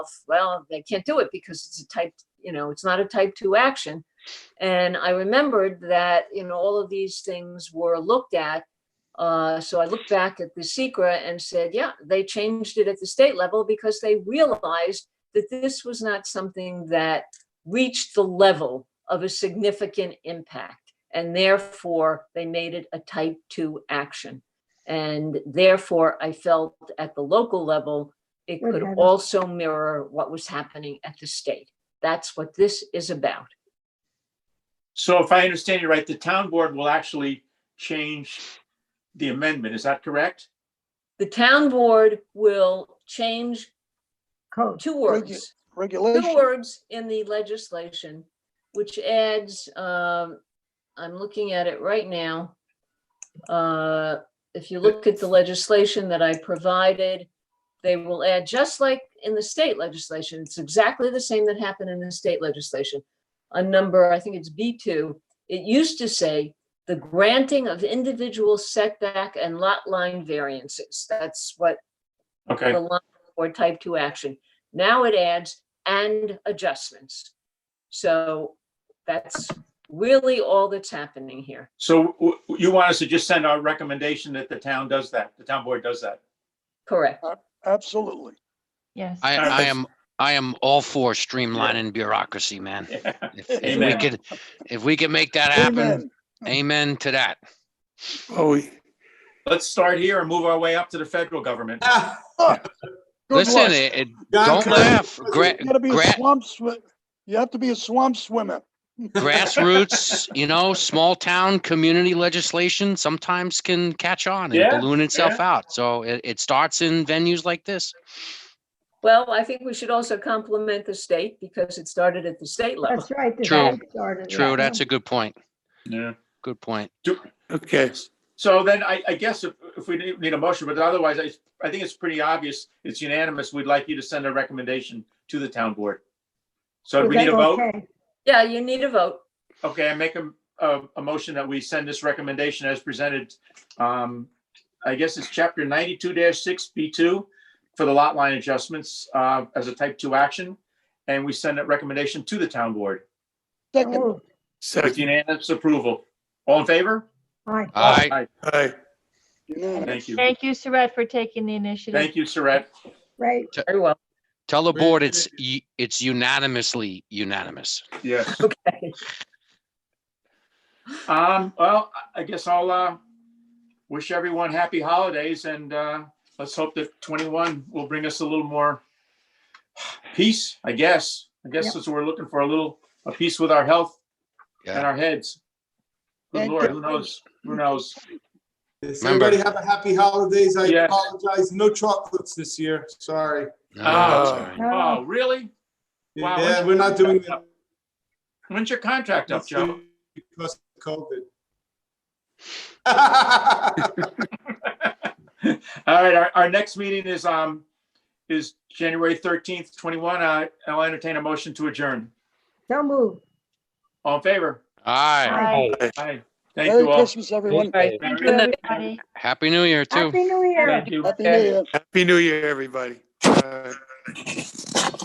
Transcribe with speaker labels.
Speaker 1: well, they can't do it because it's a type, you know, it's not a type two action. And I remembered that, you know, all of these things were looked at. Uh, so I looked back at the secret and said, yeah, they changed it at the state level because they realized that this was not something that reached the level of a significant impact. And therefore, they made it a type two action. And therefore, I felt at the local level, it
Speaker 2: Would
Speaker 1: could
Speaker 2: have-
Speaker 1: also mirror what was happening at the state. That's what this is about.
Speaker 3: So if I understand you right, the town board will actually change the amendment. Is that correct?
Speaker 1: The town board will change
Speaker 2: code.
Speaker 1: two
Speaker 4: Thank you.
Speaker 1: words. two
Speaker 4: regulation.
Speaker 1: words in the legislation, which adds, um, I'm looking at it right now. Uh, if you look at the legislation that I provided, they will add, just like in the state legislation, it's exactly the same that happened in the state legislation. A number, I think it's B two, it used to say the granting of individual setback and lot line variances. That's what
Speaker 3: Okay,
Speaker 1: the line or type two action. Now it adds and adjustments. So that's really all that's happening here.
Speaker 3: so w- w- you want us to just send our recommendation that the town does that, the town board does that?
Speaker 1: Correct.
Speaker 4: Absolutely.
Speaker 2: Yes.
Speaker 5: I,
Speaker 3: Alright,
Speaker 5: I
Speaker 3: thanks.
Speaker 5: am, I am all for streamlining bureaucracy, man. If if we
Speaker 3: Amen.
Speaker 5: could, if we could make that happen,
Speaker 4: Amen.
Speaker 5: amen to that.
Speaker 6: Oh,
Speaker 3: Let's start here and move our way up to the federal government.
Speaker 6: Ah,
Speaker 4: Good
Speaker 5: Listen,
Speaker 4: luck.
Speaker 5: it, it-
Speaker 6: John
Speaker 5: don't
Speaker 6: Curry.
Speaker 5: laugh. Gra-
Speaker 4: You gotta be a
Speaker 5: gra-
Speaker 4: swamp swi- you have to be a swamp swimmer.
Speaker 5: grassroots, you know, small town community legislation sometimes can catch on
Speaker 3: Yeah,
Speaker 5: and balloon itself out. So it, it starts in venues like this.
Speaker 1: Well, I think we should also compliment the state because it started at the state level.
Speaker 2: That's right. the
Speaker 5: True.
Speaker 2: state started
Speaker 5: True,
Speaker 2: that.
Speaker 5: that's a good point.
Speaker 3: Yeah.
Speaker 5: Good point.
Speaker 6: okay.
Speaker 3: So then I, I guess if, if we need- need a motion, but otherwise, I, I think it's pretty obvious, it's unanimous. We'd like you to send a recommendation to the town board. So do we
Speaker 2: Is
Speaker 3: need a
Speaker 2: that
Speaker 3: vote?
Speaker 2: okay?
Speaker 1: Yeah, you need a vote.
Speaker 3: Okay, I make a, a, a motion that we send this recommendation as presented. Um, I guess it's chapter ninety-two six B two for the lot line adjustments, uh, as a type two action. And we send that recommendation to the town board
Speaker 4: Second,
Speaker 2: Moved.
Speaker 3: with
Speaker 6: Second,
Speaker 3: unanimous approval. All in favor?
Speaker 2: Aye.
Speaker 5: All right,
Speaker 6: aye.
Speaker 4: unanimous.
Speaker 3: Thank you.
Speaker 7: Thank you, Saret, for taking the initiative.
Speaker 3: Thank you, Saret.
Speaker 2: Great.
Speaker 1: Very well.
Speaker 5: tell the board it's, u- it's unanimously unanimous.
Speaker 3: Yes.
Speaker 1: Okay.
Speaker 3: Um, well, I- I guess I'll, uh, wish everyone happy holidays and, uh, let's hope that twenty-one will bring us a little more peace, I guess. I guess
Speaker 2: Yep.
Speaker 3: that's what we're looking for, a little, a peace with our health and
Speaker 5: Yeah.
Speaker 3: our heads. Good
Speaker 4: Thank
Speaker 3: Lord,
Speaker 4: you.
Speaker 3: who knows? Who knows?
Speaker 6: Does
Speaker 5: Remember-
Speaker 6: everybody have a happy holidays? I
Speaker 3: Yes.
Speaker 6: apologize. No chocolates this year. Sorry.
Speaker 5: No, it's
Speaker 3: Oh.
Speaker 5: all right.
Speaker 3: Oh, really? Wow,
Speaker 6: Yeah,
Speaker 3: when's-
Speaker 6: we're not doing that.
Speaker 3: When's your contract up, Joe?
Speaker 6: Because of COVID.
Speaker 3: All right, our, our next meeting is, um, is January thirteenth, twenty-one. I, I'll entertain a motion to adjourn.
Speaker 2: So moved.
Speaker 3: All in favor?
Speaker 5: All right.
Speaker 7: Bye,
Speaker 3: Aye. Thank
Speaker 4: Merry
Speaker 3: you all.
Speaker 4: Christmas, everyone.
Speaker 1: Right.
Speaker 3: Merry-
Speaker 7: everybody.
Speaker 5: Happy New Year too.
Speaker 2: Happy New Year.
Speaker 3: Thank you.
Speaker 4: Happy New Year. Uh,
Speaker 6: Happy New Year, everybody. Bye.